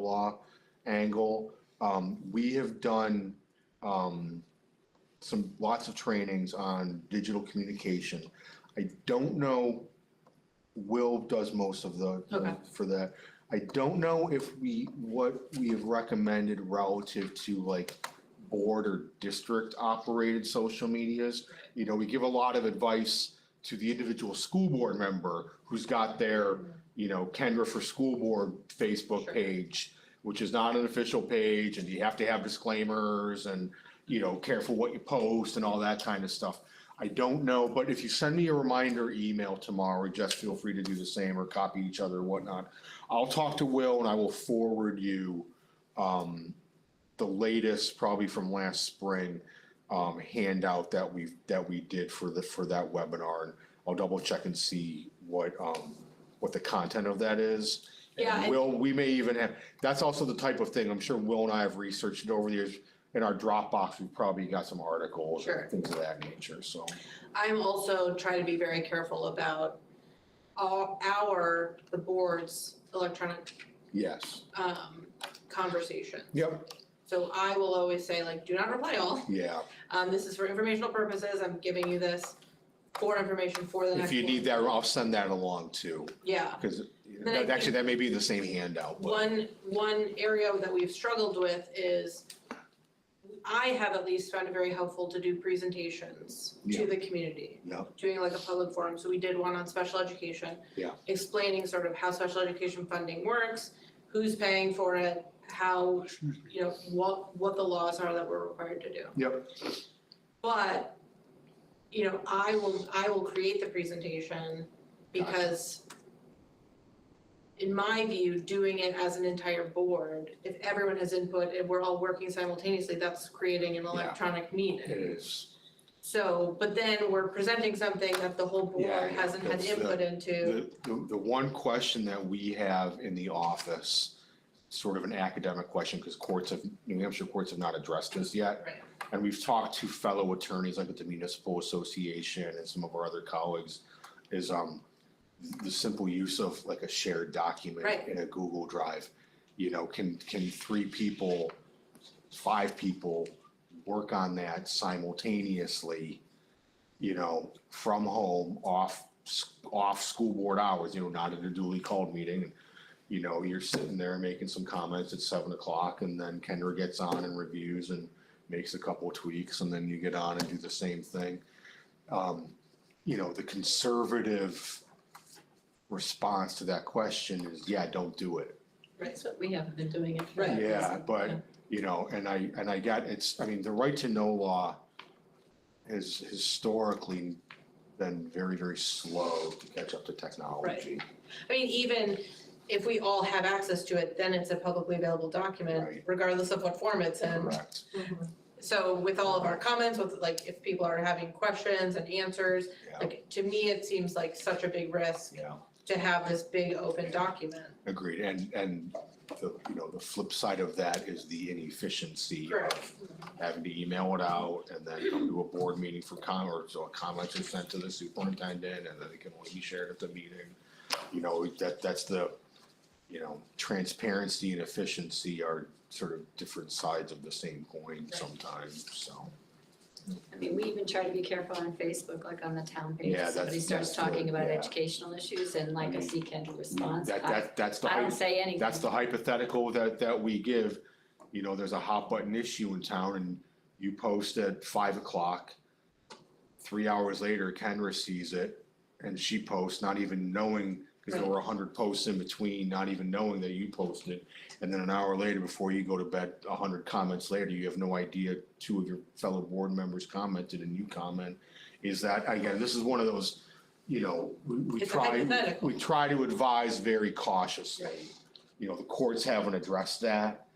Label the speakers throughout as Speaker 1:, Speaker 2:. Speaker 1: law angle. Um, we have done, um, some, lots of trainings on digital communication. I don't know, Will does most of the,
Speaker 2: Okay.
Speaker 1: for that. I don't know if we, what we have recommended relative to like board or district operated social medias. You know, we give a lot of advice to the individual school board member who's got their, you know, Kendra for School Board Facebook
Speaker 2: Sure.
Speaker 1: page, which is not an official page, and you have to have disclaimers and, you know, careful what you post and all that kind of stuff. I don't know, but if you send me a reminder email tomorrow, just feel free to do the same or copy each other and whatnot. I'll talk to Will and I will forward you, um, the latest, probably from last spring, um, handout that we, that we did for the, for that webinar. And I'll double check and see what, um, what the content of that is.
Speaker 2: Yeah,
Speaker 1: And
Speaker 2: I-
Speaker 1: Will, we may even have, that's also the type of thing, I'm sure Will and I have researched it over the years. In our Dropbox, we've probably got some articles
Speaker 2: Sure.
Speaker 1: and things of that nature, so.
Speaker 2: I'm also trying to be very careful about all our, the board's electronic
Speaker 1: Yes.
Speaker 2: um conversation.
Speaker 1: Yep.
Speaker 2: So I will always say like, do not reply all,
Speaker 1: Yeah,
Speaker 2: um this is for informational purposes, I'm giving you this for information for the next
Speaker 1: if you
Speaker 2: one.
Speaker 1: need that, I'll send that along too,
Speaker 2: Yeah,
Speaker 1: because
Speaker 2: I think-
Speaker 1: actually, that may be the same handout, but
Speaker 2: one, one area that we've struggled with is I have at least found it very helpful to do presentations to
Speaker 1: Yeah.
Speaker 2: the community.
Speaker 1: Yeah.
Speaker 2: Doing like a public forum, so we did one on special education.
Speaker 1: Yeah.
Speaker 2: Explaining sort of how special education funding works, who's paying for it, how, you know, what, what the laws are that we're required to do.
Speaker 1: Yep.
Speaker 2: But, you know, I will, I will create the presentation because in my view, doing it as an entire board, if everyone has input and we're all working simultaneously, that's creating an electronic meeting.
Speaker 1: it is.
Speaker 2: So, but then we're presenting something that the whole
Speaker 1: Yeah,
Speaker 2: board
Speaker 1: yeah,
Speaker 2: hasn't had
Speaker 1: that's uh, the-
Speaker 2: input into.
Speaker 1: The, the, the one question that we have in the office, sort of an academic question, because courts have, New Hampshire courts have not addressed this yet.
Speaker 2: Right.
Speaker 1: And we've talked to fellow attorneys like at the municipal association and some of our other colleagues is um the simple use of like a shared document
Speaker 2: Right.
Speaker 1: in a Google Drive. You know, can can three people, five people work on that simultaneously? You know, from home, off s- off school board hours, you know, not at a duly called meeting. You know, you're sitting there making some comments at seven o'clock and then Kendra gets on and reviews and makes a couple of tweaks and then you get on and do the same thing. Um, you know, the conservative response to that question is, yeah, don't do it.
Speaker 3: That's what we haven't been doing it.
Speaker 2: Right.
Speaker 1: Yeah, but, you know, and I, and I got, it's, I mean, the right to know law has historically been very, very slow to catch up to technology.
Speaker 2: I mean, even if we all have access to it, then it's a publicly available document,
Speaker 1: Right.
Speaker 2: regardless of what form it's in. Mm-hmm.
Speaker 1: Correct.
Speaker 2: So with all of our comments, with like if people are having questions and answers,
Speaker 1: Yeah.
Speaker 2: like to me, it seems like such a big risk
Speaker 1: Yeah,
Speaker 2: to have this big open document.
Speaker 1: agreed. And, and the, you know, the flip side of that is the inefficiency of
Speaker 2: Correct.
Speaker 1: having to email it out and then come to a board meeting for comment, or so comments are sent to the superintendent and then it can only be shared at the meeting. You know, that, that's the, you know, transparency and efficiency are sort of different sides of the same coin sometimes, so.
Speaker 3: I mean, we even try to be careful on Facebook, like on the town page,
Speaker 1: Yeah,
Speaker 3: if somebody
Speaker 1: that's-
Speaker 3: starts
Speaker 1: that's good,
Speaker 3: talking about
Speaker 1: yeah. Mm-hmm.
Speaker 3: educational issues and like a secant response,
Speaker 1: That,
Speaker 3: I,
Speaker 1: that, that's the,
Speaker 3: I don't
Speaker 1: hy-
Speaker 3: say anything.
Speaker 1: that's the hypothetical that, that we give. You know, there's a hot button issue in town and you post at five o'clock. Three hours later, Kendra sees it and she posts, not even knowing, because there were a hundred posts in between, not even knowing that you posted. And then an hour later, before you go to bed, a hundred comments later, you have no idea two of your fellow board members commented and you comment. Is that, again, this is one of those, you know, we- we
Speaker 2: It's a
Speaker 1: try,
Speaker 2: hypothetical.
Speaker 1: we try to advise very cautiously. You know, the courts haven't addressed that,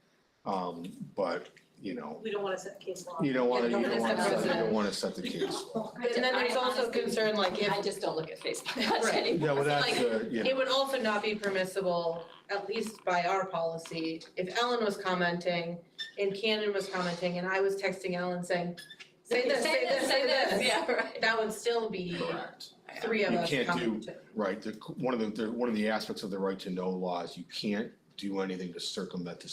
Speaker 1: um, but, you know,
Speaker 4: We don't wanna set case law.
Speaker 1: you don't wanna, you
Speaker 2: Yeah,
Speaker 1: don't wanna, set- you
Speaker 2: precedent.
Speaker 1: don't wanna set the case.
Speaker 2: And then there's also concern like if,
Speaker 3: I just don't look at Facebook much
Speaker 2: Right.
Speaker 3: anymore.
Speaker 1: Yeah, well, that's,
Speaker 2: Like,
Speaker 1: uh, yeah,
Speaker 2: it would also not be permissible, at least by our policy, if Ellen was commenting and Cannon was commenting and I was texting Ellen saying, say this, say this, say this.
Speaker 3: yeah, right.
Speaker 2: That would still be
Speaker 1: correct.
Speaker 2: three of
Speaker 1: You
Speaker 2: us
Speaker 1: can't do-
Speaker 2: commenting.
Speaker 1: Right, the, one of the, the, one of the aspects of the right to know law is you can't do anything to circumvent the